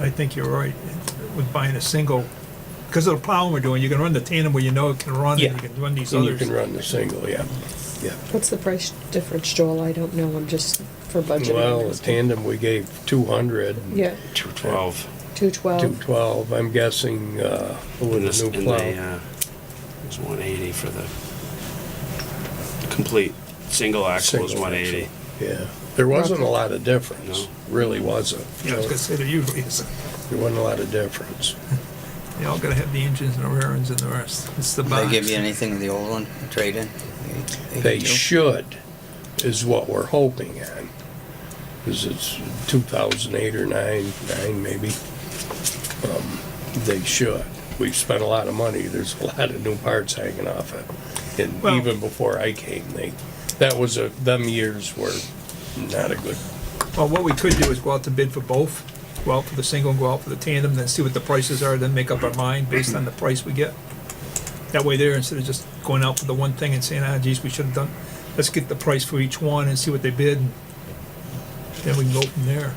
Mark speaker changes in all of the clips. Speaker 1: I think you're right with buying a single, because of the plowing we're doing, you can run the tandem where you know it can run,
Speaker 2: Yeah.
Speaker 1: and you can run these
Speaker 2: And you
Speaker 1: others.
Speaker 2: can run the single, yeah, yeah.
Speaker 3: What's the price difference, Joel? I don't know, I'm just for budget.
Speaker 2: Well, the tandem, we gave two hundred.
Speaker 3: Yeah,
Speaker 4: Two twelve.
Speaker 2: Two
Speaker 3: two twelve.
Speaker 2: twelve, I'm guessing, uh,
Speaker 4: And
Speaker 2: with
Speaker 4: this-
Speaker 2: the
Speaker 4: and
Speaker 2: new
Speaker 4: they,
Speaker 2: plow.
Speaker 4: uh, it was one eighty for the complete, single axle was
Speaker 2: Single
Speaker 4: one eighty.
Speaker 2: Yeah, there wasn't a lot of difference,
Speaker 4: No.
Speaker 2: really wasn't.
Speaker 1: Yeah, I was gonna say, there usually is,
Speaker 2: There wasn't a lot of difference.
Speaker 1: they all gotta have the engines and the rear ends and the rest, it's the box.
Speaker 5: They give you anything in the old one, trade in? They-
Speaker 2: They
Speaker 5: do?
Speaker 2: should, is what we're hoping on. Because it's two thousand eight or nine, nine maybe. Um, They should. We've spent a lot of money. There's a lot of new parts hanging off it. And
Speaker 1: Well-
Speaker 2: even before I came, they, that was a, them years were not a good,
Speaker 1: Well, what we could do is go out to bid for both, go out for the single, go out for the tandem, then see what the prices are, then make up our mind based on the price we get. That way there, instead of just going out for the one thing and saying, ah, geez, we should have done, let's get the price for each one and see what they bid. and Then we can go from there.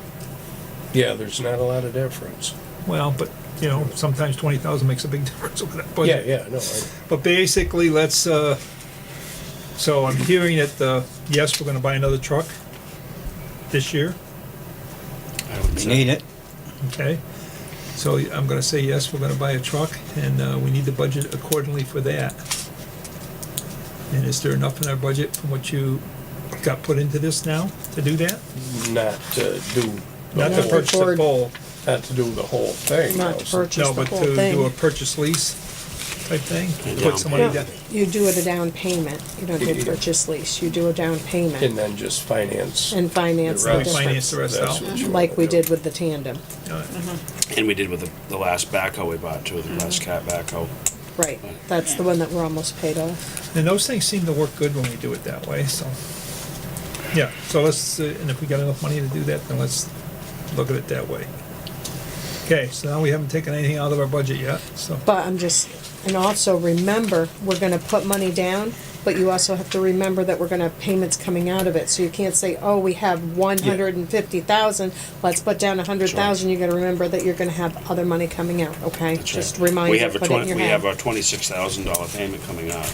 Speaker 2: yeah, there's not a lot of difference.
Speaker 1: Well, but, you know, sometimes twenty thousand makes a big difference over that budget.
Speaker 2: Yeah, yeah, no, I-
Speaker 1: But basically, let's, uh, so I'm hearing that, uh, yes, we're gonna buy another truck this year,
Speaker 4: I would
Speaker 5: You
Speaker 4: say.
Speaker 5: need it.
Speaker 1: okay? So I'm gonna say yes, we're gonna buy a truck, and, uh, we need to budget accordingly for that. And is there enough in our budget from what you got put into this now to do that?
Speaker 2: not to do.
Speaker 1: Not to
Speaker 2: whole-
Speaker 1: purchase a
Speaker 3: Ford.
Speaker 1: pole,
Speaker 2: Not to do the whole thing.
Speaker 3: Not to
Speaker 2: also.
Speaker 3: purchase
Speaker 1: no,
Speaker 3: the
Speaker 1: but
Speaker 3: whole
Speaker 1: to do a
Speaker 3: thing.
Speaker 1: purchase lease type thing?
Speaker 4: And
Speaker 1: Put
Speaker 4: down
Speaker 1: some money down,
Speaker 3: payment. You do it a down payment, you don't
Speaker 2: Yeah.
Speaker 3: do purchase lease, you do a down
Speaker 2: And
Speaker 3: payment
Speaker 2: then just finance.
Speaker 3: and finance
Speaker 2: Right.
Speaker 3: the
Speaker 1: finance the
Speaker 3: difference,
Speaker 1: rest
Speaker 2: That's
Speaker 1: out.
Speaker 2: what you
Speaker 3: like
Speaker 2: wanna
Speaker 3: we
Speaker 2: do.
Speaker 3: did with the tandem.
Speaker 1: Uh,
Speaker 4: And we did with the, the last backhoe we bought too, the last cat backhoe.
Speaker 3: Right, that's the one that we're almost paid off.
Speaker 1: And those things seem to work good when we do it that way, so. Yeah, so let's, uh, and if we got enough money to do that, then let's look at it that way. Okay, so now we haven't taken anything out of our budget yet, so.
Speaker 3: But I'm just, and also remember, we're gonna put money down, but you also have to remember that we're gonna have payments coming out of it, so you can't say, oh, we have one hundred and fifty thousand, let's put down a hundred thousand, you gotta remember that you're gonna have other money coming out, okay?
Speaker 4: That's right.
Speaker 3: Just remind
Speaker 4: We
Speaker 3: you,
Speaker 4: have a
Speaker 3: put it in
Speaker 4: twenty,
Speaker 3: your
Speaker 4: we have
Speaker 3: head.
Speaker 4: our twenty-six thousand dollar payment coming out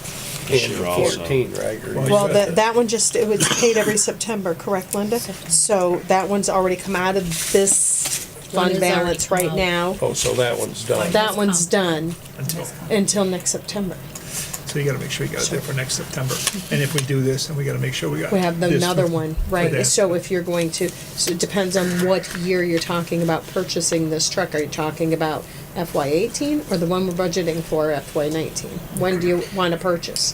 Speaker 4: this
Speaker 2: And
Speaker 4: year
Speaker 2: the
Speaker 4: also.
Speaker 2: fourteen, right? Or
Speaker 1: Well,
Speaker 2: you
Speaker 3: Well,
Speaker 2: said
Speaker 3: that, that one just, it was paid every September, correct, Linda? So that one's already come out of this fund
Speaker 6: Linda's already
Speaker 3: balance
Speaker 6: come
Speaker 3: right
Speaker 6: out.
Speaker 3: now.
Speaker 2: Oh, so that one's done.
Speaker 3: That one's done
Speaker 1: Until,
Speaker 3: until next September.
Speaker 1: so you gotta make sure you got it there for next September. And if we do this, then we gotta make sure we got.
Speaker 3: We have
Speaker 1: this
Speaker 3: another
Speaker 1: for-
Speaker 3: one,
Speaker 1: for
Speaker 3: right,
Speaker 1: that.
Speaker 3: so if you're going to, so it depends on what year you're talking about purchasing this truck. Are you talking about FY eighteen or the one we're budgeting for FY nineteen? When do you wanna purchase?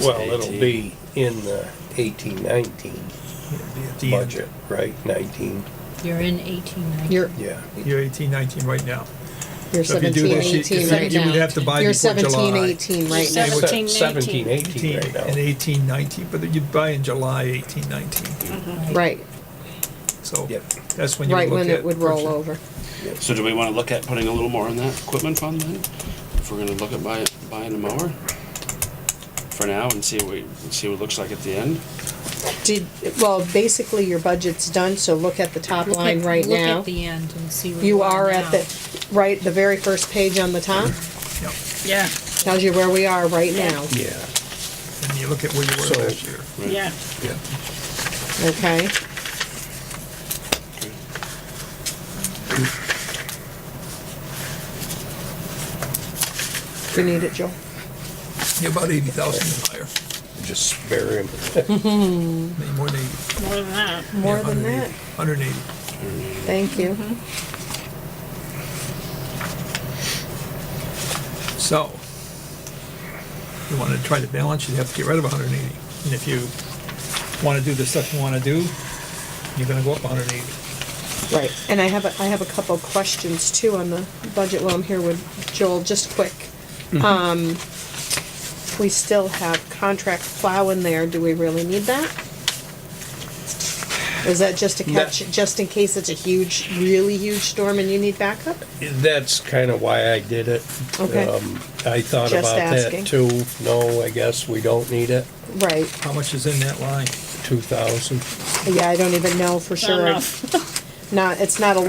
Speaker 2: Well, it'll be in the eighteen, nineteen
Speaker 1: At the end.
Speaker 2: budget, right? Nineteen,
Speaker 6: You're in eighteen ninety.
Speaker 3: You're,
Speaker 2: yeah.
Speaker 1: You're eighteen, nineteen right now.
Speaker 3: you're
Speaker 1: So if you do
Speaker 3: seventeen,
Speaker 1: this, you-
Speaker 3: eighteen
Speaker 1: you-
Speaker 3: right
Speaker 1: You
Speaker 3: now.
Speaker 1: would have to buy
Speaker 3: You're
Speaker 1: before July.
Speaker 3: seventeen, eighteen right now.
Speaker 6: Seven- 17,
Speaker 2: Seventeen,
Speaker 6: 19.
Speaker 2: eighteen right
Speaker 1: And
Speaker 2: now.
Speaker 1: eighteen, nineteen, but you'd buy in July eighteen, nineteen,
Speaker 3: Right,
Speaker 1: so
Speaker 2: Yep.
Speaker 1: that's when you would
Speaker 3: Mm-hmm. right
Speaker 1: look
Speaker 3: when it
Speaker 1: at
Speaker 3: would roll
Speaker 1: purchase-
Speaker 3: over.
Speaker 4: So do we wanna look at putting a little more in that equipment fund then? If we're gonna look at buying, buying a mower? For now and see what, we- see what it looks like at the end?
Speaker 3: Did, well, basically your budget's done, so look at the top
Speaker 6: Look at-
Speaker 3: line right
Speaker 6: Look
Speaker 3: now.
Speaker 6: at the end and see where
Speaker 3: You are
Speaker 6: now.
Speaker 3: at the, right, the very first page on the top
Speaker 1: Yep.
Speaker 7: Yeah,
Speaker 3: tells you where we are right now,
Speaker 2: Yeah,
Speaker 1: And you look at where you were
Speaker 2: So-
Speaker 1: last year.
Speaker 7: yeah.
Speaker 2: yeah.
Speaker 3: okay? You need it, Joel?
Speaker 1: Yeah, about eighty thousand higher,
Speaker 2: Just spare him.
Speaker 1: maybe more than eighty.
Speaker 7: More than that.
Speaker 3: More than that,
Speaker 1: Hundred and eighty.
Speaker 3: thank you.
Speaker 1: So, you wanna try to balance, you'd have to get rid of hundred and eighty. And if you wanna do the stuff you wanna do, you're gonna go up hundred and eighty.
Speaker 3: Right, and I have, a I have a couple of questions too on the budget while I'm here with Joel, just quick. Um, We still have contract plow in there, do we really need that? Is that just to catch, just in case it's a huge, really huge storm and you need backup?
Speaker 2: That's kind of why I did it.
Speaker 3: Okay.
Speaker 2: Um, I thought
Speaker 3: Just
Speaker 2: about that
Speaker 3: asking.
Speaker 2: too. No, I guess we don't need it.
Speaker 3: Right,
Speaker 1: How much is in that line?
Speaker 2: Two thousand.
Speaker 3: yeah, I don't even know for
Speaker 7: Not
Speaker 3: sure.
Speaker 7: enough.
Speaker 3: Not, it's not a